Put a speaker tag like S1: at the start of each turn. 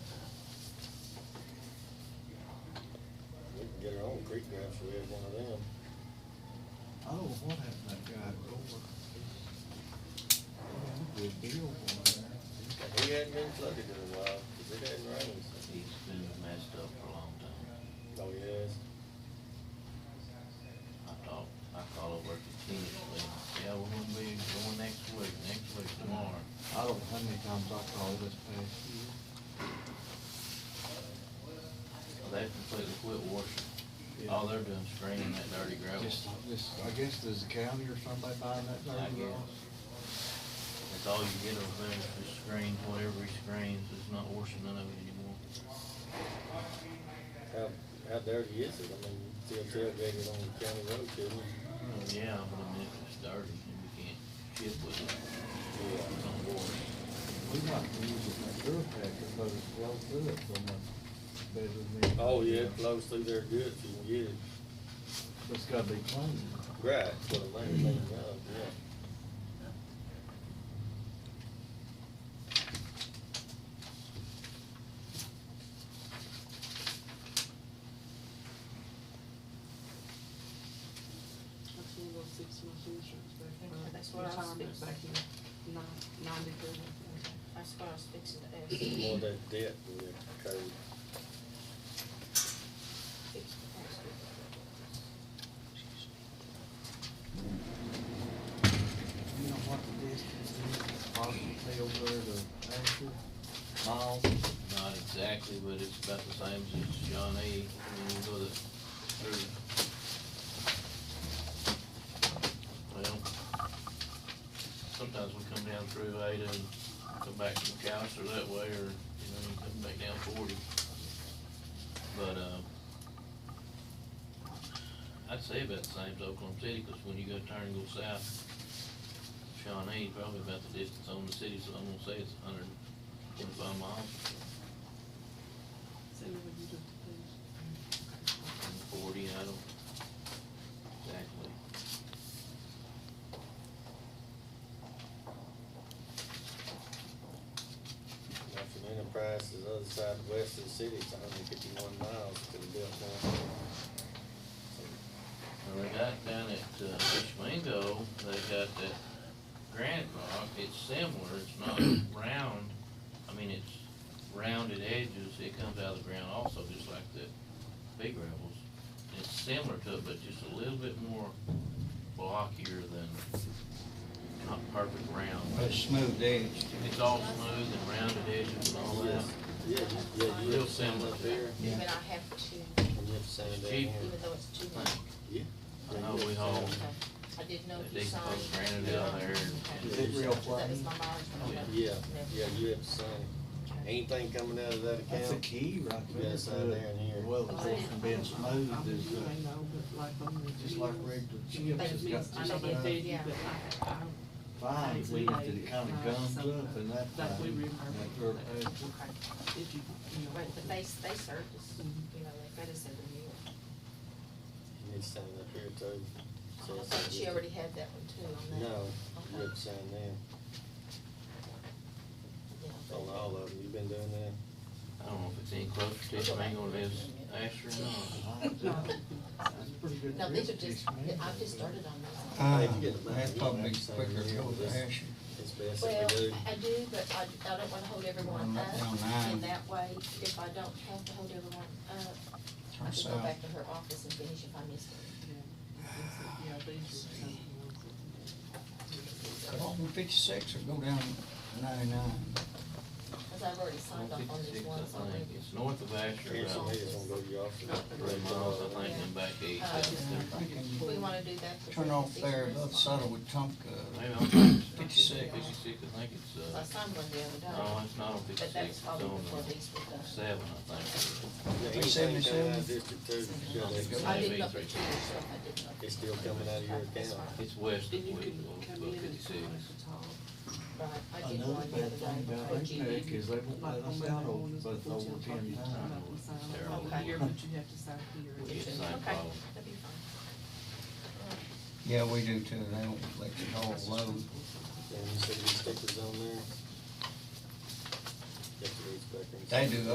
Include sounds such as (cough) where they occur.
S1: Creek Ranch, we had one of them.
S2: Oh, what happened that guy over? Yeah, we did Bill one there.
S1: And He hadn't been flooded in a while, cause it hadn't rained since.
S3: He's been messed up for a long time.
S1: Oh, yes.
S3: I talked, I called over to Kenny, said, yeah, we're gonna be going next week, next week tomorrow.
S2: I don't know how many times I called this past year.
S3: They've completely quit washing. All they're doing is draining that dirty gravel.
S2: Just, just, I guess there's a county or somebody buying that
S3: I
S2: dirt
S3: guess.
S2: road.
S3: That's all you get over there, is the screens, whatever he screens, it's not washing none of it anymore.
S1: How, how dirty is it? I mean, still tailgated on the county road, couldn't you?
S3: Oh, Yeah, but I mean, if it's dirty, and you can't chip with it,
S1: Yeah.
S3: it's not wash.
S2: We might be using that dirt packer, but it's well through it so much better than.
S1: Oh, yeah, it flows through there good if you can get it.
S2: It's gotta be clean.
S1: Right, for the land, cleaned up, yeah.
S4: That's one of those six month insurance back.
S5: Okay,
S4: uh,
S5: that's what I was
S4: retirement
S5: fixing.
S4: Back in nine, ninety-three.
S5: That's what I was fixing to ask. Fixing
S1: More of that debt we incurred.
S5: to ask you.
S2: You know what the distance is, possibly over there to Asher, miles?
S3: Not exactly, but it's about the same as John A. When you go to, through. Well, sometimes we come down through Ada and come back to McAllister that way, or, you know, you come back down forty. But, uh, I'd say about the same as Oklahoma City, 'cause when you go turn and go south, Shawnee, probably about the distance on the city, so I'm gonna say it's hundred and twenty-five miles.
S4: Say what you do to things.
S3: and forty, I don't exactly.
S1: Now, from Enterprise to the other side of west of the city, it's hundred and fifty-one miles to the Bill County.
S3: Now, they got down at uh, Fishmango, they got that granite rock, it's similar, it's not round, I mean, it's rounded edges, it comes out of the ground also, just like the big gravels. It's similar to it, but just a little bit more blockier than, not perfect round.
S2: It's smooth edge.
S3: It's all smooth and rounded edges and all that.
S1: Yeah, you- yeah, you
S3: Oh, Real
S1: have sand
S3: similar
S1: up
S3: to
S1: there,
S2: Yeah.
S5: But I have to,
S1: and you have sand
S3: It's
S1: down
S3: cheap.
S1: here.
S5: even though it's too much.
S1: Yeah.
S3: I know Oh, we haul,
S5: Okay. I didn't know if
S3: They
S5: you
S3: can
S5: signed.
S3: put granite down there and-
S5: Okay.
S2: Is it real
S5: That was
S2: plain?
S5: my mileage.
S3: Oh, yeah.
S1: Yeah, yeah, you have sand.
S5: Okay.
S1: Anything coming out of that account?
S2: That's a key right there.
S1: Yes, I down here.
S2: Well, the whole from being smooth
S4: I mean,
S2: is,
S4: you
S2: uh,
S4: may know, but like on the.
S2: just like
S4: deals,
S2: regular chips,
S4: that
S2: it's
S4: means-
S2: got
S4: I know
S2: just
S4: they
S2: enough
S4: feed you,
S5: enough.
S4: but I, I don't.
S2: fine
S4: We
S2: weed that it
S4: ate,
S2: kinda
S4: uh,
S2: gums
S4: so
S2: up and that.
S4: that we
S2: thing,
S4: remember
S2: that dirt
S4: that.
S2: patch.
S5: Okay.
S4: If you, you know.
S5: But, but they, they served us, you know, they fed us every meal.
S1: You need sand up here too. So
S5: I
S1: it's
S5: thought she
S1: good.
S5: already had that one too on that.
S1: No, uh,
S5: Okay.
S1: you have sand there.
S5: Yeah, but-
S1: On all of them, you been doing that?
S3: I don't know if it's any closer to Fishmango than it is Asher or not.
S2: That's pretty good.
S5: No, these are
S2: grip
S5: just,
S2: fish, man.
S5: I've just started on this.
S6: Uh,
S1: If you get the back,
S6: that's
S1: you don't
S6: probably
S1: have to
S6: quicker
S1: say
S6: to go to
S1: this.
S6: Asher.
S1: It's best
S5: Well,
S1: if we do.
S5: I do, but I, I don't wanna hold everyone
S6: Run
S5: up,
S6: that down line.
S5: and that way, if I don't have to hold everyone up, I
S6: Turn
S5: can go
S6: south.
S5: back to her office and finish if I miss it.
S4: Yeah, these are some ones that.
S6: Walk from fifty-six or go down ninety-nine.
S5: Cause I've already (laughs) signed off on these
S3: 156,
S5: ones
S3: I
S5: already.
S3: think. It's north of Asher,
S1: Cancel
S3: about
S1: me, it's gonna go to your office.
S3: three miles, I think, and back east.
S5: Uh,
S6: I think
S5: Do we
S6: you
S5: wanna do that? for
S6: turn off
S5: Christmas
S6: there,
S5: Eve?
S6: above Sutter with
S3: Maybe
S6: Tomka.
S3: I'm thinking Fifty-six,
S6: 56.
S3: I think it's,
S5: I
S3: uh,
S5: signed one the other
S3: no,
S5: day,
S3: it's not on
S5: but
S3: fifty-six,
S5: that was
S3: it's
S5: probably
S3: on
S5: before these were
S3: uh,
S5: done.
S3: seven, I think.
S1: Yeah, anything coming out of District Two, you gotta have
S3: Seventy-seven.
S1: sand.
S5: I did not put
S3: Maybe
S5: two, so I did not.
S1: It's still coming out of your
S5: That's
S1: account.
S5: fine.
S3: It's west of
S4: Then you can
S3: Wheatville,
S4: come
S3: about
S4: in and
S3: uh, fifty-six.
S4: talk at all.
S5: Right, I did
S2: Another
S5: one the other
S2: bad thing
S5: day,
S2: about
S5: for E.
S2: APEC
S5: GB.
S2: is they won't let
S4: Like on
S2: us
S4: Monday
S2: out over,
S4: mornings
S2: but
S4: before
S2: over
S4: 10 o'clock,
S2: ten
S4: you come
S2: times.
S4: up and sign off
S3: Terrible.
S4: over here, but you have to sign here.
S3: We get the same
S5: Okay,
S3: problem.
S5: that'd be fine.
S3: uh,
S6: Yeah, we do too. They don't let you haul
S4: That's just
S6: load.
S1: And you said these stickers on there? Get these back in.
S6: They do